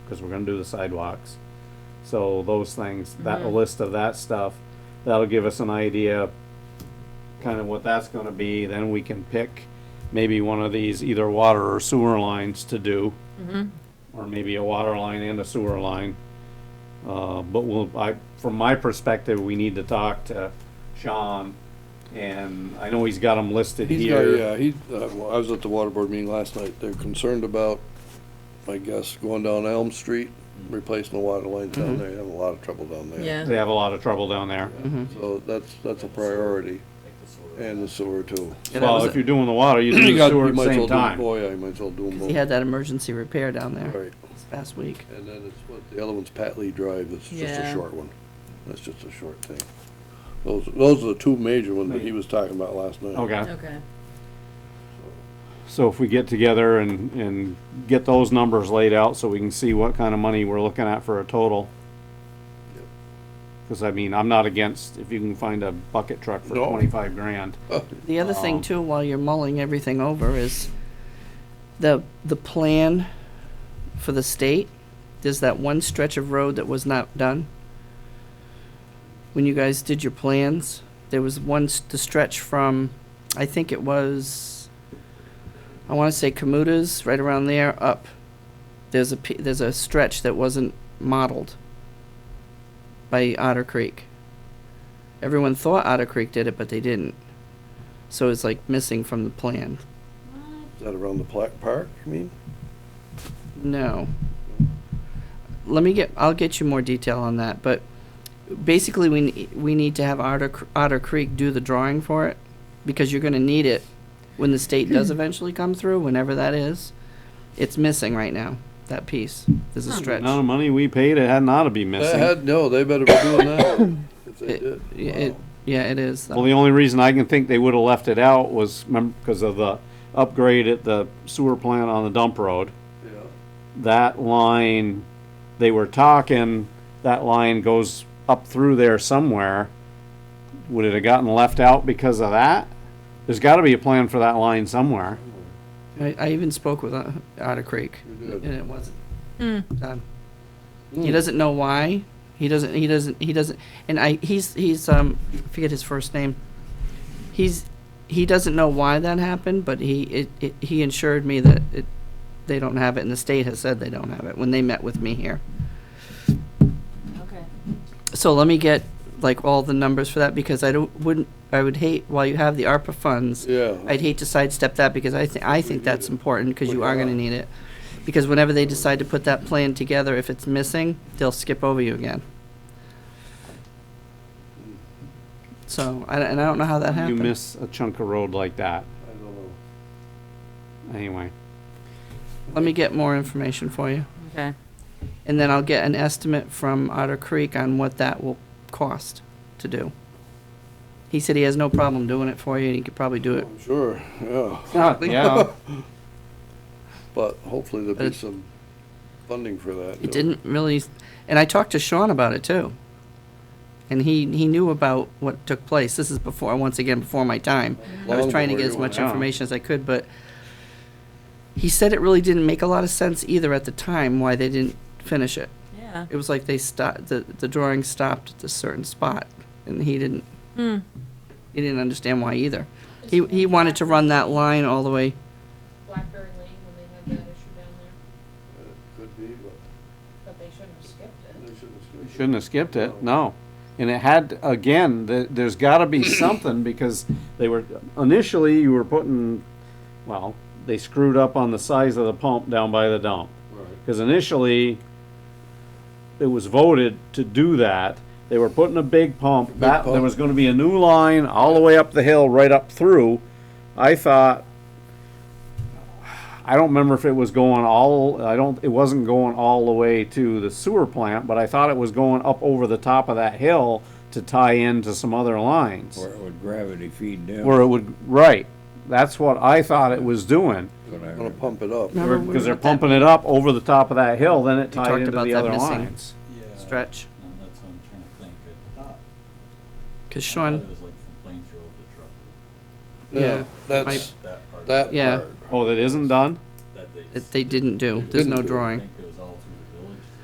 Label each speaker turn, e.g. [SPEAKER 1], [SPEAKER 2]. [SPEAKER 1] cause we're gonna do the sidewalks. So those things, that, a
[SPEAKER 2] Mhm.
[SPEAKER 1] list of that stuff, that'll give us an idea kinda what that's gonna be, then we can pick maybe one of these either water or sewer lines to do. Or maybe a water line and a sewer line. Uh, but we'll, I, from my perspective, we need to talk to Sean, and I know he's got them listed
[SPEAKER 3] He's got,
[SPEAKER 1] here.
[SPEAKER 3] yeah, he, uh, well, I was at the water board meeting last night, they're concerned about, I guess, going down Elm Street,
[SPEAKER 1] Mm-hmm.
[SPEAKER 3] replacing the water lines down there, They have a lot of trouble down there.
[SPEAKER 2] Yeah.
[SPEAKER 1] They have a lot of trouble down there.
[SPEAKER 3] Mm-hmm. So that's, that's a priority, and the sewer too.
[SPEAKER 4] And that was
[SPEAKER 1] Well, if
[SPEAKER 4] it.
[SPEAKER 1] you're doing the water, you do
[SPEAKER 3] You
[SPEAKER 1] the
[SPEAKER 3] got-
[SPEAKER 1] sewer
[SPEAKER 3] you
[SPEAKER 1] at the
[SPEAKER 3] might as
[SPEAKER 1] same
[SPEAKER 3] well do-
[SPEAKER 1] time.
[SPEAKER 3] Boy, I might as well do them
[SPEAKER 4] He
[SPEAKER 3] both.
[SPEAKER 4] had that emergency repair down there
[SPEAKER 3] Right,
[SPEAKER 4] this past week.
[SPEAKER 3] and then it's, what, the other one's Pat Lee Drive, that's just a
[SPEAKER 2] Yeah.
[SPEAKER 3] short one, that's just a short thing. Those, those are the two major ones that he was talking about last night.
[SPEAKER 1] Okay,
[SPEAKER 2] Okay.
[SPEAKER 1] so if we get together and, and get those numbers laid out so we can see what kind of money we're looking at for a total.
[SPEAKER 3] Yep.
[SPEAKER 1] Cause I mean, I'm not against if you can find a bucket truck for
[SPEAKER 3] No.
[SPEAKER 1] twenty-five grand.
[SPEAKER 4] The other
[SPEAKER 1] Um,
[SPEAKER 4] thing too, while you're mulling everything over, is the, the plan for the state, there's that one stretch of road that was not done. When you guys did your plans, there was one, s- the stretch from, I think it was, I wanna say Kamuta's, right around there, up. There's a, p- there's a stretch that wasn't modeled by Otter Creek. Everyone thought Otter Creek did it, but they didn't. So it's like missing from the plan.
[SPEAKER 3] Is that around the pla- park, you mean?
[SPEAKER 4] No. Let me get, I'll get you more detail on that, but basically we, ne- we need to have Otter, Cr- Otter Creek do the drawing for it because you're gonna need it when the state does eventually come through, whenever that is. It's missing right now, that piece. There's a
[SPEAKER 1] The
[SPEAKER 4] stretch.
[SPEAKER 1] amount of money we paid, it hadn't ought to be
[SPEAKER 3] They
[SPEAKER 1] missing.
[SPEAKER 3] had, no, they better be doing that, if they
[SPEAKER 4] It-
[SPEAKER 3] did.
[SPEAKER 4] it-
[SPEAKER 3] Wow.
[SPEAKER 4] Yeah, it is. though.
[SPEAKER 1] Well, the only reason I can think they would have left it out was because of the upgrade at the sewer plant on the dump road.
[SPEAKER 3] Yeah.
[SPEAKER 1] That line, they were talking, that line goes up through there somewhere. Would it have gotten left out because of that? There's gotta be a plan for that line somewhere.
[SPEAKER 4] I, I even spoke with uh, Otter Creek,
[SPEAKER 3] You did.
[SPEAKER 4] and it wasn't
[SPEAKER 2] Hmm.
[SPEAKER 4] done.
[SPEAKER 3] Hmm.
[SPEAKER 4] He doesn't know why. He doesn't. He doesn't. He doesn't. And I. He's. He's. Um. Forget his first name. He's. He doesn't know why that happened, but he. It. it he assured me that it. They don't have it, and the state has said they don't have it when they met with me here.
[SPEAKER 2] Okay.
[SPEAKER 4] So let me get like all the numbers for that because I don't. Wouldn't. I would hate while you have the ARPA funds.
[SPEAKER 3] Yeah,
[SPEAKER 4] I'd hate to sidestep that because I think, I think that's important because you are gonna need it. Because whenever they decide to put that plan together, if it's missing, they'll skip over you again. So, I, and I don't know how that
[SPEAKER 1] You
[SPEAKER 4] happened.
[SPEAKER 1] miss a chunk of road like that,
[SPEAKER 3] I don't know.
[SPEAKER 1] anyway.
[SPEAKER 4] Let me get more information for you.
[SPEAKER 2] Okay.
[SPEAKER 4] And then I'll get an estimate from Otter Creek on what that will cost to do. He said he has no problem doing it for you and he could probably do it.
[SPEAKER 3] I'm sure, yeah,
[SPEAKER 1] Yeah,
[SPEAKER 3] but hopefully there'll be
[SPEAKER 4] But-
[SPEAKER 3] some funding for that.
[SPEAKER 4] It didn't really, and I talked to Sean about it too. And he, he knew about what took place. This is before, once again, before my time. I was trying to get as much
[SPEAKER 1] Wow.
[SPEAKER 4] information as I could, but he said it really didn't make a lot of sense either at the time why they didn't finish it.
[SPEAKER 2] Yeah.
[SPEAKER 4] It was like they stopped, the, the drawing stopped at a certain spot, and he didn't,
[SPEAKER 2] Hmm.
[SPEAKER 4] he didn't understand why either. He, he wanted to run that line all the way,
[SPEAKER 5] Blackberry Lane when they had that issue down there,
[SPEAKER 3] Could be, but
[SPEAKER 5] but they shouldn't have skipped it.
[SPEAKER 3] they shouldn't have.
[SPEAKER 1] Shouldn't have skipped it, no. And it had, again, th- there's gotta be something, because they were, initially, you were putting, well, they screwed up on the size of the pump down by the dump.
[SPEAKER 3] Right.
[SPEAKER 1] Because initially, it was voted to do that. They were putting a big pump, that, there
[SPEAKER 3] pump.
[SPEAKER 1] was gonna be a new line all the way up the hill, right up through. I thought, I don't remember if it was going all, I don't, it wasn't going all the way to the sewer plant, but I thought it was going up over the top of that hill to tie into some other lines.
[SPEAKER 6] Or it would gravity feed down.
[SPEAKER 1] Where it would, right, that's what I thought it was doing.
[SPEAKER 6] But I-
[SPEAKER 3] Gonna pump it up.
[SPEAKER 4] No. Remember we
[SPEAKER 1] Because they're
[SPEAKER 4] were at that-
[SPEAKER 1] pumping it up over the top of that hill, then it tied
[SPEAKER 4] talked
[SPEAKER 1] into
[SPEAKER 4] about
[SPEAKER 1] the
[SPEAKER 4] that
[SPEAKER 1] other
[SPEAKER 4] missing.
[SPEAKER 1] lines.
[SPEAKER 7] Yeah.
[SPEAKER 4] stretch,
[SPEAKER 7] No, that's what I'm trying to think. I thought-
[SPEAKER 4] cause
[SPEAKER 7] I thought
[SPEAKER 4] Sean,
[SPEAKER 7] It was like from Plainfield to Trumbull,
[SPEAKER 4] yeah,
[SPEAKER 3] That's,
[SPEAKER 7] that part.
[SPEAKER 3] that
[SPEAKER 4] Yeah.
[SPEAKER 3] part.
[SPEAKER 1] Oh, that isn't done?
[SPEAKER 7] That they.
[SPEAKER 4] that they didn't do. There's no drawing.
[SPEAKER 7] Think